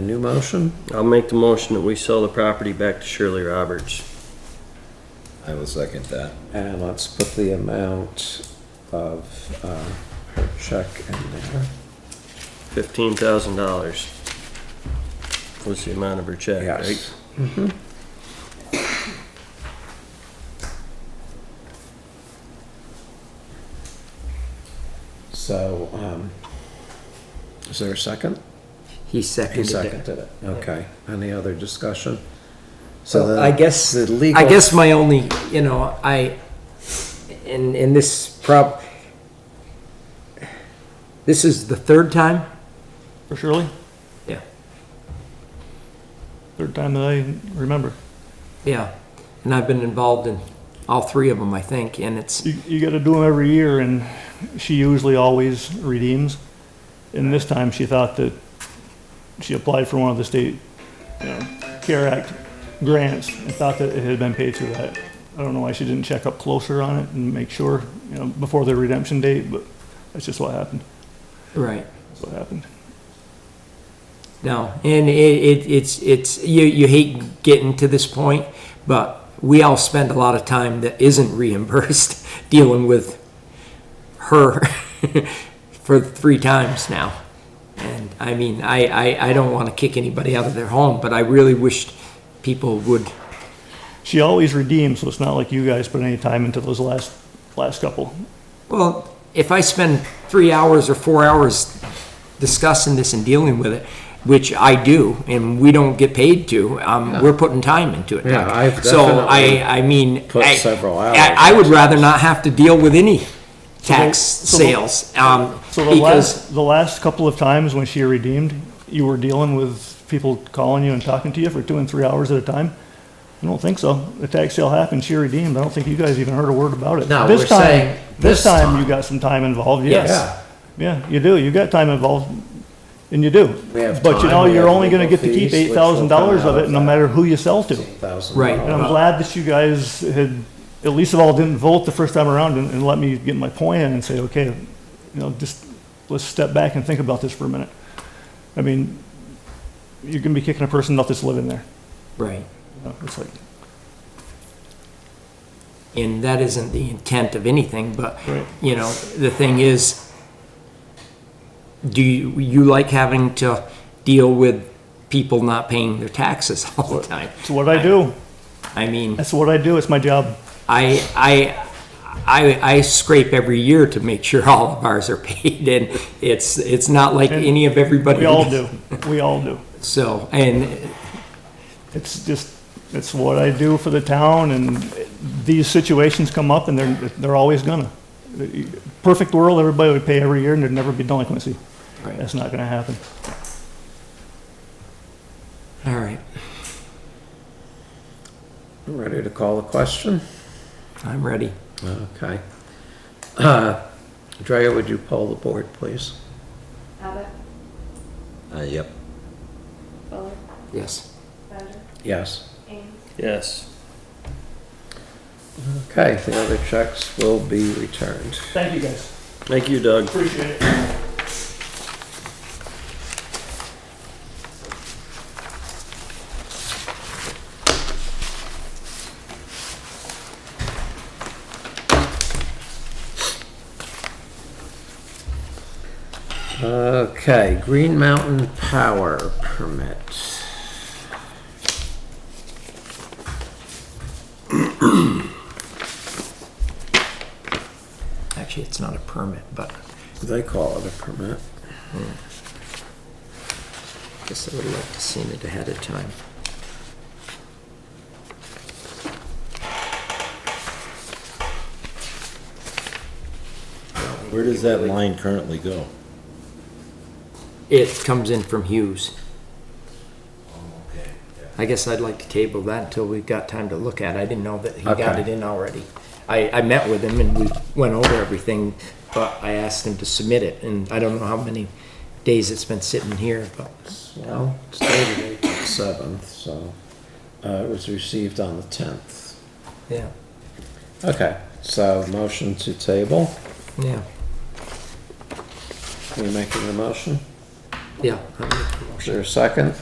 new motion? I'll make the motion that we sell the property back to Shirley Roberts. I will second that. And let's put the amount of uh, her check in there. Fifteen thousand dollars was the amount of her check, right? Yes. Mm-hmm. So, um, is there a second? He He seconded it. seconded it. Okay. Any other discussion? So the- I guess, The legal. I guess my only, you know, I, in, in this prob, this is the third time? For Shirley? Yeah. Third time that I remember. Yeah, and I've been involved in all three of them, I think, and it's, You, you gotta do them every year and she usually always redeems. And this time she thought that she applied for one of the state, you know, CARE Act grants and thought that it had been paid through that. I don't know why she didn't check up closer on it and make sure, you know, before the redemption date, but that's just what happened. right, That's what happened. no, and it, it, it's, it's, you, you hate getting to this point, but we all spend a lot of time that isn't reimbursed dealing with her for three times now. And I mean, I, I, I don't wanna kick anybody out of their home, but I really wished people would, She always redeems, so it's not like you guys put any time into those last, last couple. Well, if I spend three hours or four hours discussing this and dealing with it, which I do, and we don't get paid to, um, we're putting time into it. Yeah, I've So definitely I, I mean. put I- several I- hours I would rather not have to deal with any tax so the- sales, um, So the because, last, the last couple of times when she redeemed, you were dealing with people calling you and talking to you for two and three hours at a time? I don't think so. The tax sale happened, she redeemed. I don't think you guys even heard a word about it. No, This we're time- saying this This time time. you got some time involved, Yeah. yes. Yeah, you do. You got time involved and you do. We have But you time, know, we you're have only gonna legal get to keep fees, which eight will come thousand dollars out of of it no that. matter who you sell to. $8,000. Right. And I'm glad that you guys had, at least of all, didn't vote the first time around and, and let me get my point in and say, okay, you know, just, let's step back and think about this for a minute. I mean, you're gonna be kicking a person out that's living there. right, You know, It's like, and that isn't the intent of anything, but, Right. you know, the thing is, do you, you like having to deal with people not paying their taxes all the time? it's what I do. I mean, That's what I do. It's my job. I, I, I, I scrape every year to make sure all of ours are paid, and it's, it's not like any of everybody. We all do. We all do. So, and, It's just, it's what I do for the town and these situations come up and they're, they're always gonna. Perfect world, everybody would pay every year and there'd never be delinquency. Right. That's not gonna happen. all right, Ready to call the question? I'm ready. Okay. Uh, Drea, would you poll the board, please? Abbott, Uh, yep. Fuller, Yes. Bowden, Yes. Ames. Yes. Okay, the other checks will be returned. Thank you guys. Thank you, Doug. Appreciate it. Okay, Green Mountain Power Permit. Actually, it's not a permit, but They call it a permit. I guess I would have liked to seen it ahead of time. Where does that line currently go? It comes in from Hughes. Oh, Okay. I guess I'd like to table that until we've got time to look at it. I didn't know that he got Okay. it in already. I, I met with him and we went over everything, but I asked him to submit it, and I don't know how many days it's been sitting here, but Well, it's dated April 7th, so uh, it was received on the 10th. yeah, Okay, so motion to table. yeah, Are you making the motion? yeah. I'm- Is there a second?